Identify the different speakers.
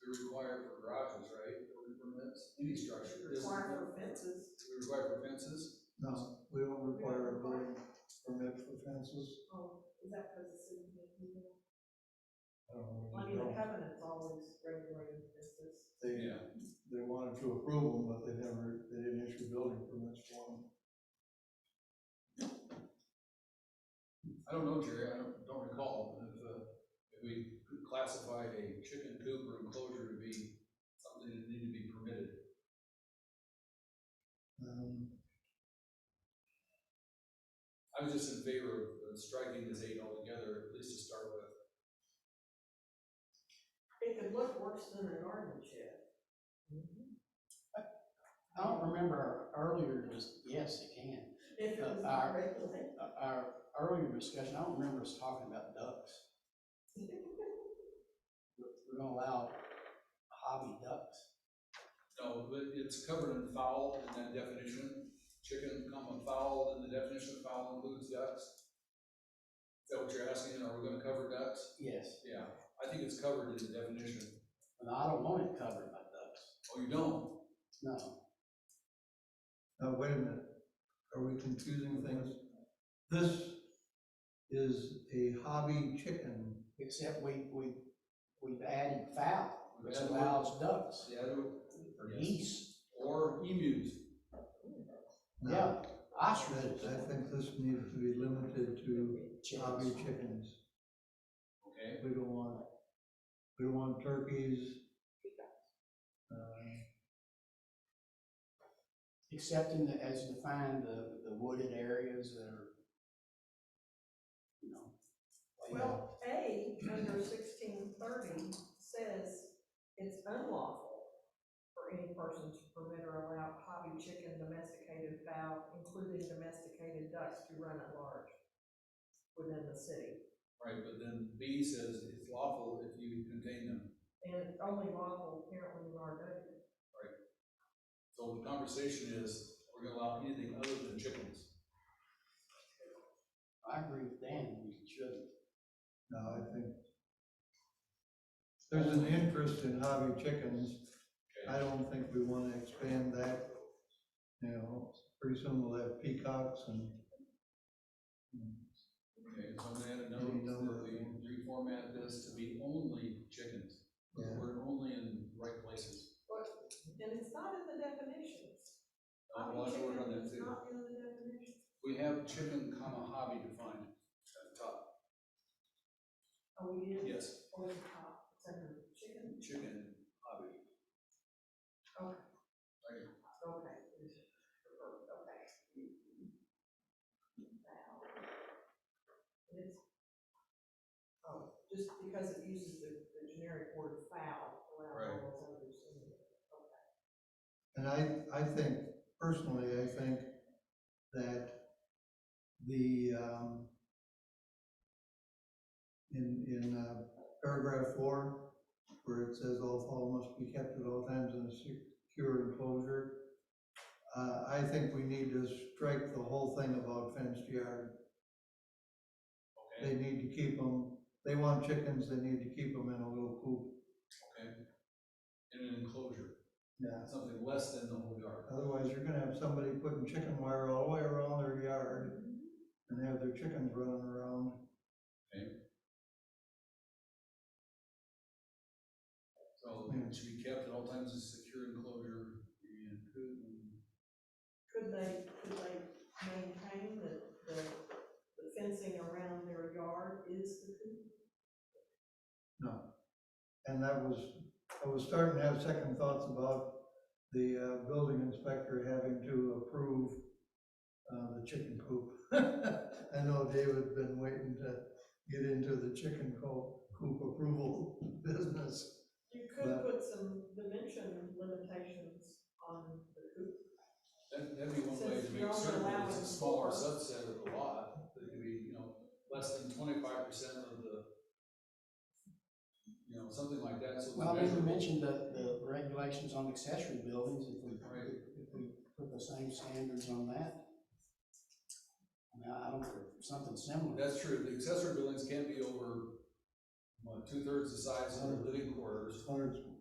Speaker 1: we require for garages, right, building permits, any structure, does
Speaker 2: Require for fences.
Speaker 1: we require for fences?
Speaker 3: No, we don't require a building permit for fences.
Speaker 2: Oh, is that because it's in the,
Speaker 3: I don't know.
Speaker 2: I mean,
Speaker 3: they
Speaker 2: the
Speaker 3: don't.
Speaker 2: covenant's always regulated fences.
Speaker 3: They, they wanted to approve them, but they never, they didn't issue building permits for them.
Speaker 1: I don't know, Jerry, I don't, don't recall, if, uh, if we could classify a chicken coop or enclosure to be something that needed to be permitted.
Speaker 3: Um,
Speaker 1: I was just in favor of striking this eight altogether, at least to start with.
Speaker 2: It could look worse than an orange shed.
Speaker 4: I don't remember our earlier, dis- yes, it can.
Speaker 2: If it was
Speaker 4: Uh, uh,
Speaker 2: not regulated.
Speaker 4: Uh, Our earlier discussion, I don't remember us talking about ducks. We're we're gonna allow hobby ducks.
Speaker 1: No, but it's covered in fowl in that definition, chicken, comma, fowl, and the definition of fowl includes ducks. Is that what you're asking, are we gonna cover ducks?
Speaker 4: Yes,
Speaker 1: Yeah, I think it's covered in the definition.
Speaker 4: and I don't want it covered by ducks.
Speaker 1: Oh, you don't?
Speaker 4: No,
Speaker 3: Now, wait a minute, are we confusing things? This is a hobby chicken.
Speaker 4: except we, we, we've added fowl, which
Speaker 1: Yeah.
Speaker 4: allows ducks,
Speaker 1: Yeah, I don't-
Speaker 4: or
Speaker 1: Yes.
Speaker 4: geese.
Speaker 1: Or emus,
Speaker 3: Now,
Speaker 4: Ostriches.
Speaker 3: that- I think this needs to be limited to
Speaker 4: chickens.
Speaker 3: hobby chickens.
Speaker 1: okay?
Speaker 3: We don't want, we don't want turkeys. Uh,
Speaker 4: Except in the, as defined, the, the wooded areas that are, you know. like-
Speaker 2: Well, A, under sixteen thirty, says it's unlawful for any person to permit or allow hobby chicken, domesticated fowl, including domesticated ducks, to run at large within the city.
Speaker 1: Right, but then B says it's lawful if you contain them.
Speaker 2: And it's only lawful apparently in our neighborhood.
Speaker 1: So the conversation is, we're gonna allow anything other than chickens.
Speaker 4: I agree with Dan, we shouldn't.
Speaker 3: No, I think there's an interest in hobby chickens. I don't think we want to expand that. You know, pretty soon we'll have peacocks and
Speaker 1: Okay, so I'm gonna add a note
Speaker 3: Any number
Speaker 1: that
Speaker 3: of
Speaker 1: we
Speaker 3: things.
Speaker 1: reformat this to be only chickens.
Speaker 3: Yeah.
Speaker 1: We're only in the right places.
Speaker 2: But, and it's not in the definitions.
Speaker 1: Uh,
Speaker 2: Hobby
Speaker 1: Well, I
Speaker 2: chicken
Speaker 1: wrote on that
Speaker 2: is
Speaker 1: too.
Speaker 2: not in the definition.
Speaker 1: We have chicken comma hobby defined at the top.
Speaker 2: Oh, we did,
Speaker 1: Yes,
Speaker 2: or the top, it's under chicken,
Speaker 1: chicken hobby.
Speaker 2: okay.
Speaker 1: Right.
Speaker 2: Okay. Okay. Wow. It is. Oh, just because it uses the, the generic word foul, allow
Speaker 1: Right.
Speaker 2: all those others in there. okay.
Speaker 3: And I, I think, personally, I think that the, um, in, in uh, paragraph four, where it says all fowl must be kept at all times in a secure enclosure, uh, I think we need to strike the whole thing about fenced yard.
Speaker 1: Okay,
Speaker 3: They need to keep them, they want chickens, they need to keep them in a little coop.
Speaker 1: okay. In an enclosure,
Speaker 3: Yeah.
Speaker 1: something less than the whole yard.
Speaker 3: Otherwise, you're gonna have somebody putting chicken wire all the way around their yard. and have their chickens running around.
Speaker 1: So it should be kept at all times in secure enclosure and could,
Speaker 2: Could they, could they maintain that the, the fencing around their yard is the coop?
Speaker 3: And that was, I was starting to have second thoughts about the uh, building inspector having to approve uh, the chicken coop. I know David's been waiting to get into the chicken co- coop approval business.
Speaker 2: You could
Speaker 3: But-
Speaker 2: put some dimension limitations on the coop.
Speaker 1: that, that'd be one way
Speaker 2: Says
Speaker 1: to
Speaker 2: you're
Speaker 1: make
Speaker 2: only
Speaker 1: certain that it's
Speaker 2: allowing
Speaker 1: a smaller
Speaker 2: four.
Speaker 1: subset of the lot, that it could be, you know, less than twenty-five percent of the, you know, something like that, so. it's
Speaker 4: Well, we
Speaker 1: measurable.
Speaker 4: mentioned the, the regulations on accessory buildings, if we,
Speaker 1: Right.
Speaker 4: if we put the same standards on that. I mean, I don't, something similar.
Speaker 1: That's true, the accessory buildings can't be over, what, two-thirds the size of the living quarters,
Speaker 3: Hundred